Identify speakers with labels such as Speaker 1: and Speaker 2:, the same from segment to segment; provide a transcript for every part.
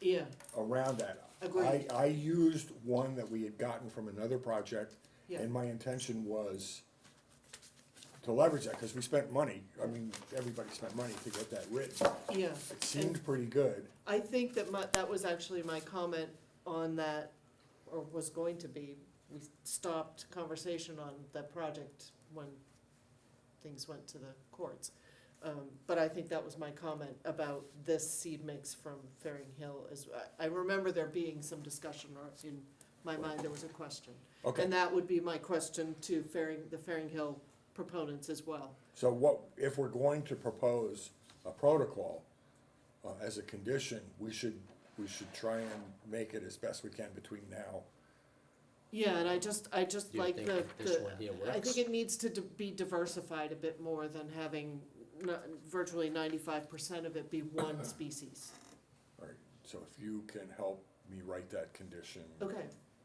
Speaker 1: yeah,
Speaker 2: around that.
Speaker 1: Agreed.
Speaker 2: I, I used one that we had gotten from another project,
Speaker 1: Yeah.
Speaker 2: and my intention was to leverage that, cause we spent money, I mean, everybody spent money to get that written.
Speaker 1: yeah.
Speaker 2: It
Speaker 1: And
Speaker 2: seemed pretty good,
Speaker 1: I think that my, that was actually my comment on that, or was going to be, we stopped conversation on that project when things went to the courts. Um, but I think that was my comment about this seed mix from Fairing Hill is, I, I remember there being some discussion or in my mind, there was a question.
Speaker 2: okay,
Speaker 1: And that would be my question to Fairing, the Fairing Hill proponents as well.
Speaker 2: so what, if we're going to propose a protocol, uh, as a condition, we should, we should try and make it as best we can between now.
Speaker 1: Yeah, and I just, I just
Speaker 3: Do you
Speaker 1: like
Speaker 3: think
Speaker 1: the,
Speaker 3: that this
Speaker 1: the,
Speaker 3: one here
Speaker 1: I
Speaker 3: works?
Speaker 1: think it needs to di- be diversified a bit more than having n- virtually ninety-five percent of it be one species.
Speaker 2: Alright, so if you can help me write that condition,
Speaker 1: Okay,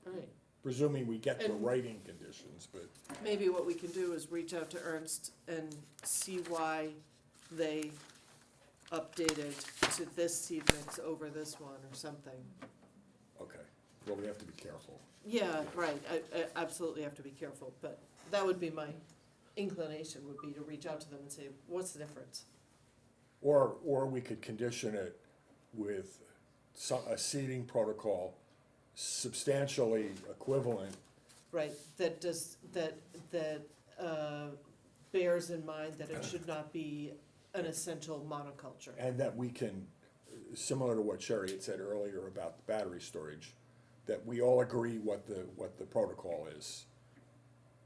Speaker 1: all right.
Speaker 2: presuming we get the
Speaker 1: And-
Speaker 2: writing conditions, but.
Speaker 1: Maybe what we can do is reach out to Ernst and see why they updated to this seed mix over this one or something.
Speaker 2: Okay, well, we have to be careful.
Speaker 1: Yeah, right, I, I absolutely have to be careful, but that would be my inclination, would be to reach out to them and say, what's the difference?
Speaker 2: Or, or we could condition it with some, a seating protocol substantially equivalent.
Speaker 1: Right, that does, that, that uh, bears in mind that it should not be an essential monoculture.
Speaker 2: And that we can, similar to what Sherry had said earlier about the battery storage, that we all agree what the, what the protocol is.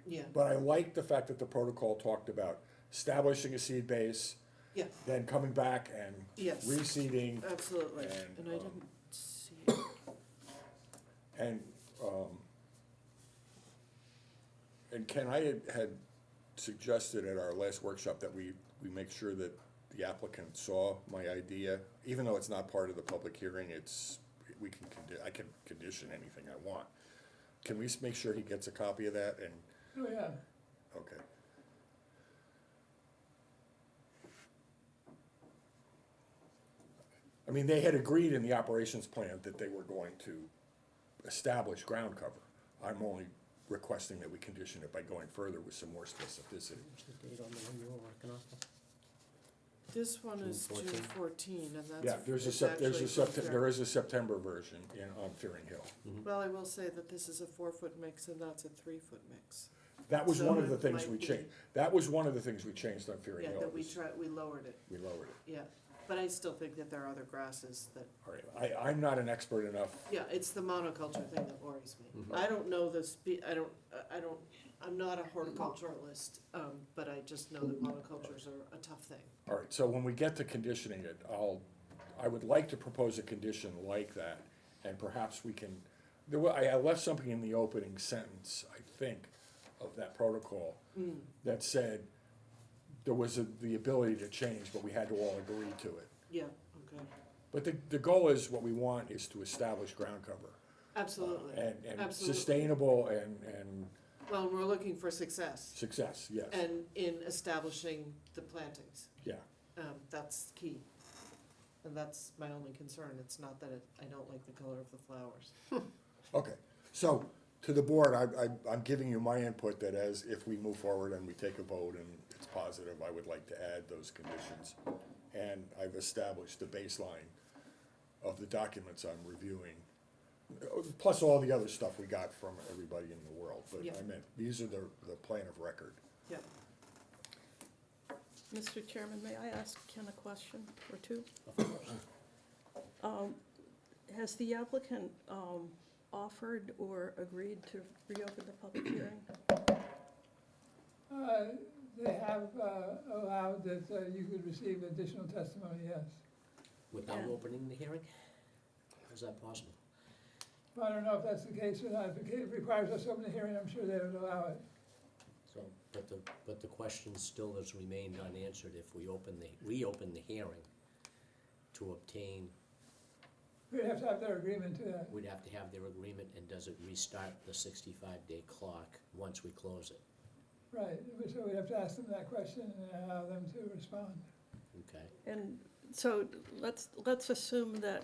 Speaker 1: Yeah,
Speaker 2: But I like the fact that the protocol talked about establishing a seed base,
Speaker 1: yeah,
Speaker 2: then coming back and
Speaker 1: Yes.
Speaker 2: reseeding,
Speaker 1: absolutely.
Speaker 2: And,
Speaker 1: And I
Speaker 2: um,
Speaker 1: didn't see, it.
Speaker 2: And, um, and Ken, I had, had suggested at our last workshop that we, we make sure that the applicant saw my idea, even though it's not part of the public hearing, it's, we can, condi- I can condition anything I want. Can we s- make sure he gets a copy of that and,
Speaker 4: Oh, yeah.
Speaker 2: okay, I mean, they had agreed in the operations plan that they were going to establish ground cover. I'm only requesting that we condition it by going further with some more specificity.
Speaker 3: What's the date on the one you were working off of?
Speaker 1: this one is
Speaker 3: June
Speaker 1: June
Speaker 3: 14.
Speaker 1: fourteen, and that's.
Speaker 2: Yeah, there's a
Speaker 1: it's
Speaker 2: Sep, there's
Speaker 1: actually
Speaker 2: a September,
Speaker 1: from
Speaker 2: there is a September version in, on Fearing Hill.
Speaker 1: Fran- Well, I will say that this is a four-foot mix and that's a three-foot mix.
Speaker 2: That was
Speaker 1: So
Speaker 2: one of the
Speaker 1: it
Speaker 2: things
Speaker 1: might
Speaker 2: we
Speaker 1: be-
Speaker 2: changed, that was one of the things we changed on Fearing
Speaker 1: Yeah,
Speaker 2: Hill.
Speaker 1: that we
Speaker 2: was
Speaker 1: tried, we lowered it,
Speaker 2: We lowered
Speaker 1: yeah. But I still think that there are other grasses that
Speaker 2: it, all right, I, I'm not an expert enough,
Speaker 1: Yeah, it's the monoculture thing that worries me. I don't know the spe, I don't, I don't, I'm not a horticulturalist, um, but I just know that monocultures are a tough thing.
Speaker 2: all right, so when we get to conditioning it, I'll, I would like to propose a condition like that, and perhaps we can, there wa, I, I left something in the opening sentence, I think, of that protocol,
Speaker 1: Mm.
Speaker 2: that said, there was a- the ability to change, but we had to all agree to it.
Speaker 1: Yeah, okay,
Speaker 2: But the, the goal is, what we want is to establish ground cover.
Speaker 1: absolutely,
Speaker 2: Uh, And, and
Speaker 1: absolutely.
Speaker 2: sustainable and, and
Speaker 1: Well, we're looking for success
Speaker 2: success, yes,
Speaker 1: and in establishing the plantings,
Speaker 2: yeah.
Speaker 1: um, that's key. And that's my only concern, it's not that it, I don't like the color of the flowers.
Speaker 2: Okay, so to the board, I, I, I'm giving you my input that as if we move forward and we take a vote and it's positive, I would like to add those conditions. And I've established the baseline of the documents I'm reviewing, uh, plus all the other stuff we got from everybody in the world. But
Speaker 1: Yeah.
Speaker 2: I meant, these are the, the plan of record.
Speaker 1: Yeah,
Speaker 5: Mr. Chairman, may I ask Ken a question or two? Um, Has the applicant um, offered or agreed to reopen the public hearing?
Speaker 4: Uh, They have uh, allowed that uh, you could receive additional testimony, yes.
Speaker 3: Without
Speaker 5: Yeah.
Speaker 3: opening the hearing? How's that possible?
Speaker 4: But I don't know if that's the case or not. If it requires us to open the hearing, I'm sure they would allow it.
Speaker 3: So, but the, but the question still has remained unanswered if we open the, reopen the hearing to obtain,
Speaker 4: We'd have to have their agreement to that.
Speaker 3: we'd have to have their agreement, and does it restart the sixty-five day clock once we close it?
Speaker 4: Right, so we'd have to ask them that question and allow them to respond.
Speaker 3: Okay,
Speaker 5: And so let's, let's assume that